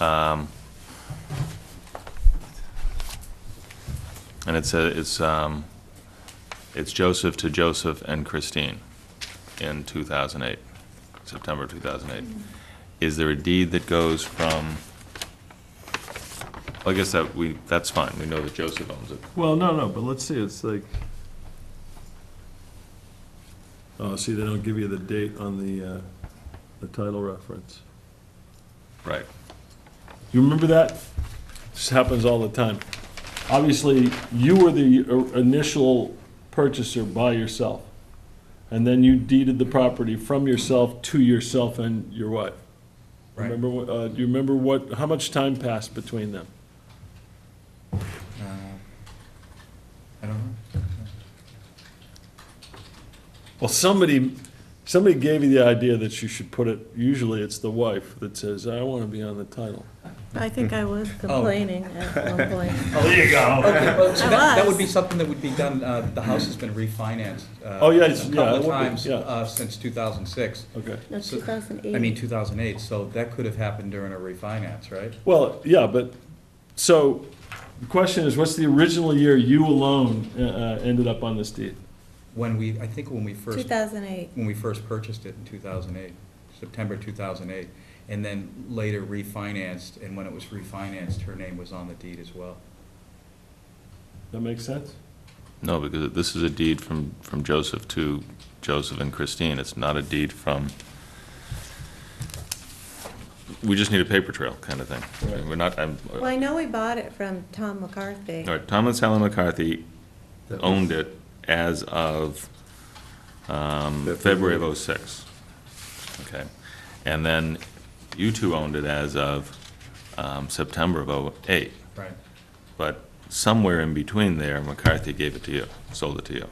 Um, And it's, a it's, um, it's Joseph to Joseph and Christine in 2008, September 2008. Is there a deed that goes from, I guess that we, that's fine, we know that Joseph owns it. Well, no, no, but let's see, it's like, oh, see, they don't give you the date on the, uh, the title reference. Right. You remember that? This happens all the time. Obviously, you were the o- initial purchaser by yourself, and then you deeded the property from yourself to yourself and your wife. Right. Remember, what- uh, do you remember what, how much time passed between them? Uh, I don't know. Well, somebody, somebody gave you the idea that you should put it, usually it's the wife that says, I want to be on the title. I think I was Oh. complaining at one point. Oh, there you go. Okay, well, so that, that would be was. something that would be done, uh, the house has been refinanced. uh, Oh, yeah, it's- A yeah, it couple would of be, times, yeah. uh, since two thousand six. Okay. No, So- 2008. I mean, two thousand eight, so that could have happened during a refinance, right? Well, yeah, but, so, the question is, what's the original year you alone uh, uh, ended up on this deed? When we, I think when we first, 2008. when we first purchased it in two thousand eight, September two thousand eight, and then later refinanced, and when it was refinanced, her name was on the deed as well. That makes sense? No, because this is a deed from, from Joseph to Joseph and Christine. It's not a deed from, we just need a paper trail kind of thing. Right. We're not, I'm, Well, I know we bought it from Tom McCarthy. all right, Thomas Helen McCarthy owned it as of um, February of '06. Okay. And then you two owned it as of um, September of '08. Right. But somewhere in between there, McCarthy gave it to you, sold it to you.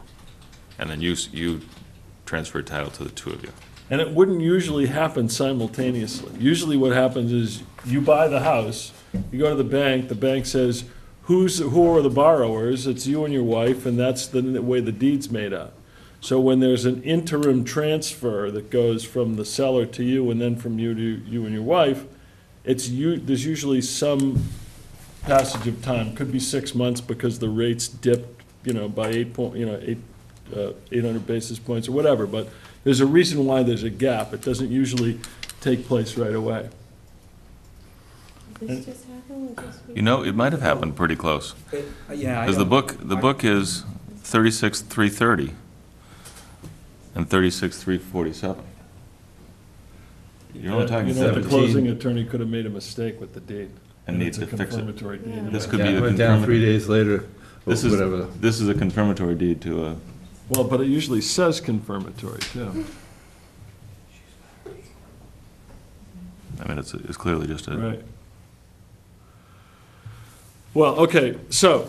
And then you, s- you transferred title to the two of you. And it wouldn't usually happen simultaneously. Usually what happens is you buy the house, you go to the bank, the bank says, who's, who are the borrowers? It's you and your wife, and that's the n- way the deed's made out. So when there's an interim transfer that goes from the seller to you and then from you to you and your wife, it's you, there's usually some passage of time, could be six months because the rates dipped, you know, by eight point, you know, eight, uh, eight hundred basis points or whatever, but there's a reason why there's a gap. It doesn't usually take place right away. This just happened with this You know, it might have happened pretty close. uh, Yeah. I Because the don't- book, the book is 36, 330 and 36, 347. You're only talking Uh, You know, the 17. closing attorney could have made a mistake with the deed. And needs it's a to fix it. confirmatory deed. Yeah. This anyway. could be Yeah, the went down three confirmatory. days later, or This is, whatever. this is a confirmatory deed to a, Well, but it usually says confirmatory, too. I mean, it's, it's clearly just a, Right. Well, okay, so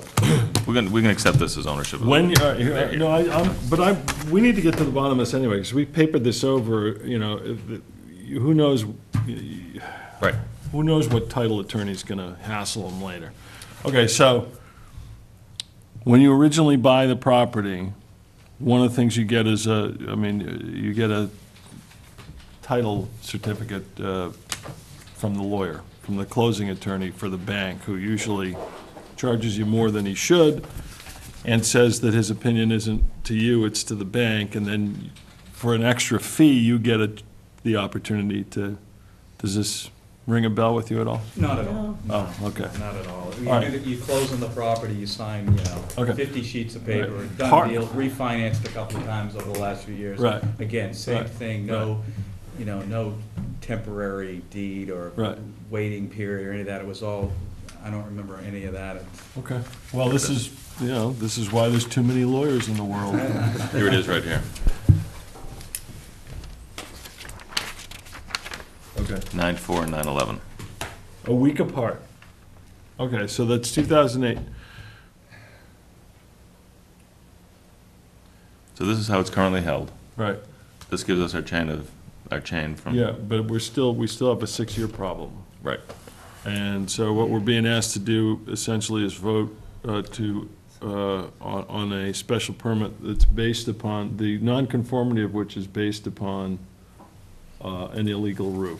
we can, we can accept this as ownership. of the- When, you- all right, here, no, I, I'm, but I'm, we need to get to the bottom of this anyway, because we papered this over, you know, if the- who knows, Right. who knows what title attorney's gonna hassle them later. Okay, so, when you originally buy the property, one of the things you get is a, I mean, you get a title certificate uh, from the lawyer, from the closing attorney for the bank, who usually charges you more than he should, and says that his opinion isn't to you, it's to the bank, and then for an extra fee, you get a, the opportunity to, does this ring a bell with you at all? Not at all. Oh, okay. Not at all. All You right. do- you close on the property, you sign, you know, Okay. fifty sheets of paper, Right. Part- done deal, refinanced a couple of times over the last few years. Right. Again, same Right. thing, no, you know, no temporary deed or Right. waiting period or any of that. It was all, I don't remember any of that. Okay. Well, this is, you know, this is why there's too many lawyers in the world. Here it is, right here. Okay. 9/4 and 9/11. A week apart. Okay, so that's 2008. So this is how it's currently held. Right. This gives us our chain of, our chain from. Yeah, but we're still, we still have a six-year problem. Right. And so what we're being asked to do essentially is vote uh, to, uh, on on a special permit that's based upon, the nonconformity of which is based upon uh, an illegal roof.